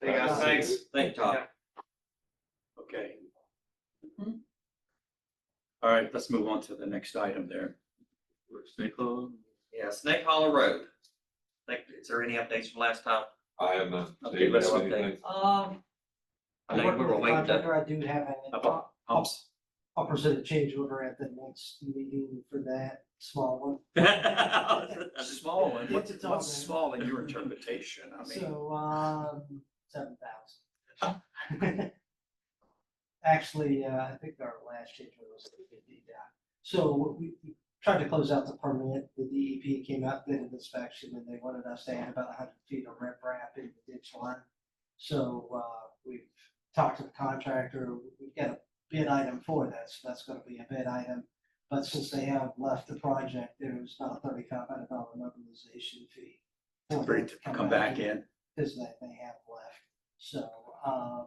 Hey, guys, thanks. Thank you, Todd. Okay. All right, let's move on to the next item there. Snake Hollow? Yeah, Snake Hollow Road. Like, is there any updates from last time? I am not. Okay, David, let's anything? update. Um, I I think work we with were the waiting to, contractor, I do have an, about humps. I'll present a change order at the next meeting for that small one. Small one, what's, It's all what's right. small in your interpretation? I mean, So, um, seven thousand. Actually, uh, I think our last change order was the fifty down. So what we we tried to close out the permit, the DEP came out, did an inspection, and they wanted us to add about hundred feet of riprap in the ditch line. So, uh, we've talked to the contractor, we've got a bid item for that, so that's gonna be a bid item. But since they have left the project, there's not a thirty-five hundred dollar mobilization fee. for for them it to come back in. because that they have left. So, um, uh,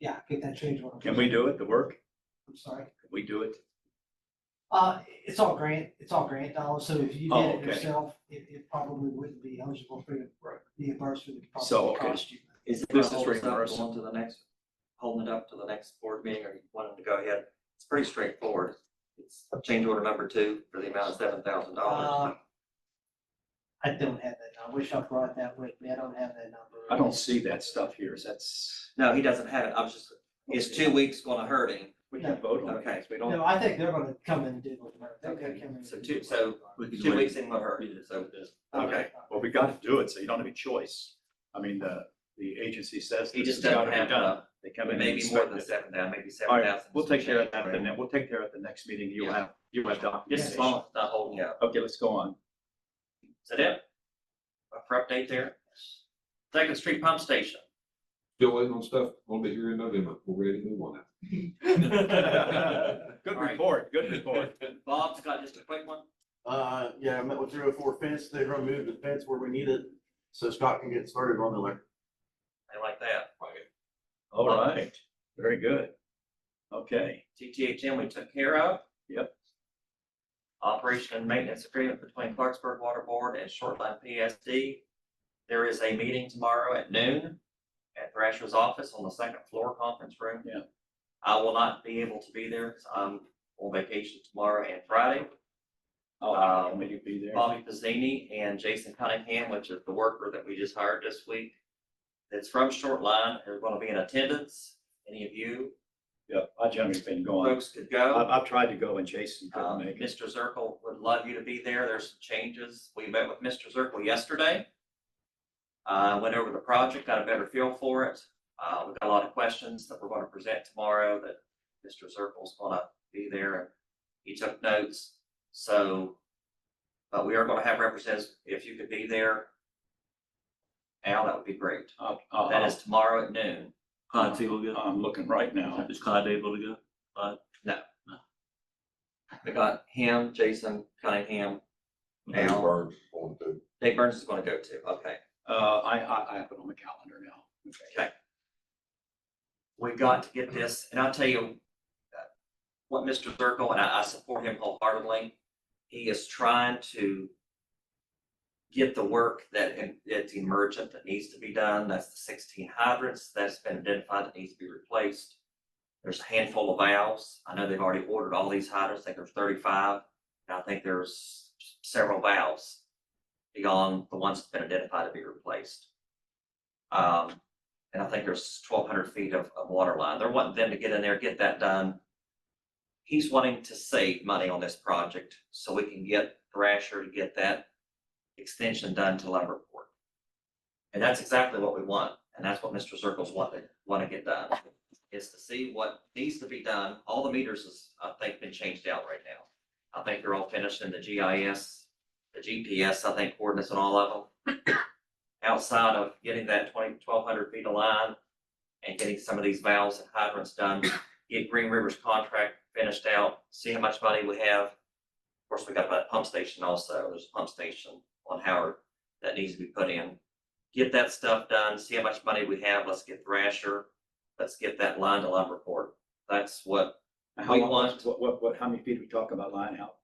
yeah, get that change order. Can we do it, the work? I'm sorry. Can we do it? Uh, it's all grant, it's all grant dollars, so if you Oh, did it okay. yourself, it, it probably wouldn't be eligible for the reimbursement. It'd So, probably okay. cost you. Is it This gonna is hold us up reimbursed. going to the next, holding it up to the next board meeting or you want them to go ahead? It's pretty straightforward. It's change order number two for the amount of seven thousand dollars. Uh, I don't have that. I wish I brought that with me. I don't have that number. I don't see that stuff here, is that's, No, he doesn't have it. I was just, is two weeks gonna hurt him? we can vote on it, Okay. because we don't. No, I think they're gonna come and do it. They're gonna Okay. come and So do two- it. so we can Two wait. weeks ain't gonna hurt, so, okay. Well, we gotta do it, so you don't have a choice. I mean, the, the agency says. He this just has doesn't gotta be have done. enough. They come in and Maybe more inspect than it. seven thousand, maybe All seven right, thousand. we'll take care of that, then, we'll take care of it the next meeting, you'll Yeah. have, you'll have Just as documentation. long as it's not holding up. Okay, let's go on. Is that it? For update there? Second Street Pump Station. Still waiting on stuff, won't be here in November, we're ready to move on now. Good All right. report, good report. Bob's got just a quick one. Uh, yeah, I met with three oh four fence, they removed the fence where we need it, so Scott can get started on the electric. I like that. All right, very good. Okay, GTHM we took care of. Yep. Operation and maintenance agreement between Clarksburg Water Board and Shortline PSD. There is a meeting tomorrow at noon at Thrasher's office on the second floor conference room. Yeah. I will not be able to be there. 'cause I'm on vacation tomorrow and Friday. I'll Um, have you be there. Bobby Pizzini and Jason Cunningham, which is the worker that we just hired this week. That's from Shortline, are gonna be in attendance. Any of you Yeah, I generally been going. folks could I've, go. I've tried to go and Jason couldn't Um, make it. Mr. Zirkle would love you to be there. There's some changes. We met with Mr. Zirkle yesterday. Uh, went over the project, got a better feel for it. Uh, we've got a lot of questions that we're gonna present tomorrow that Mr. Zirkle's gonna be there. He took notes, so, but we are gonna have representatives, if you could be there. Al, that would be great. I'll- That I'll- is tomorrow at noon. Clancy will get, I'm looking right now. is Clyde able to go? We got him, Jason Cunningham, Al. Burns on the Dave Burns is gonna go too, okay. Uh, I, I, I have it on the calendar now. we've got to get this, and I'll tell you uh, what Mr. Zirkle, and I, I support him wholeheartedly, he is trying to get the work that, em- that's emergent that needs to be done, that's the sixteen hydrants that's been identified that needs to be replaced. There's a handful of valves, I know they've already ordered all these hydrants, I think there's thirty-five, and I think there's several valves beyond the ones that's been identified to be replaced. Um, and I think there's twelve hundred feet of, of water line. They're wanting them to get in there, get that done. He's wanting to save money on this project so we can get Thrasher to get that extension done to Lumberport. And that's exactly what we want, and that's what Mr. Circles want, want to get done, is to see what needs to be done. All the meters is, I think, been changed out right now. I think they're all finished in the GIS, the GPS, I think coordinates on all of them outside of getting that twenty, twelve hundred feet of line and getting some of these valves and hydrants done, get Green River's contract finished out, see how much money we have. Of course, we got that pump station also, there's a pump station on Howard that needs to be put in. Get that stuff done, see how much money we have, let's get Thrasher, let's get that line to Lumberport. That's what How We long- want- What, what, what, how many feet are we talking about line out?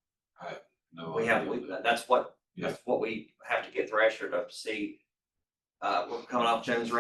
No. we have, we- that's what, Yeah. that's what we have to get Thrasher to see. Uh, we're coming off Jones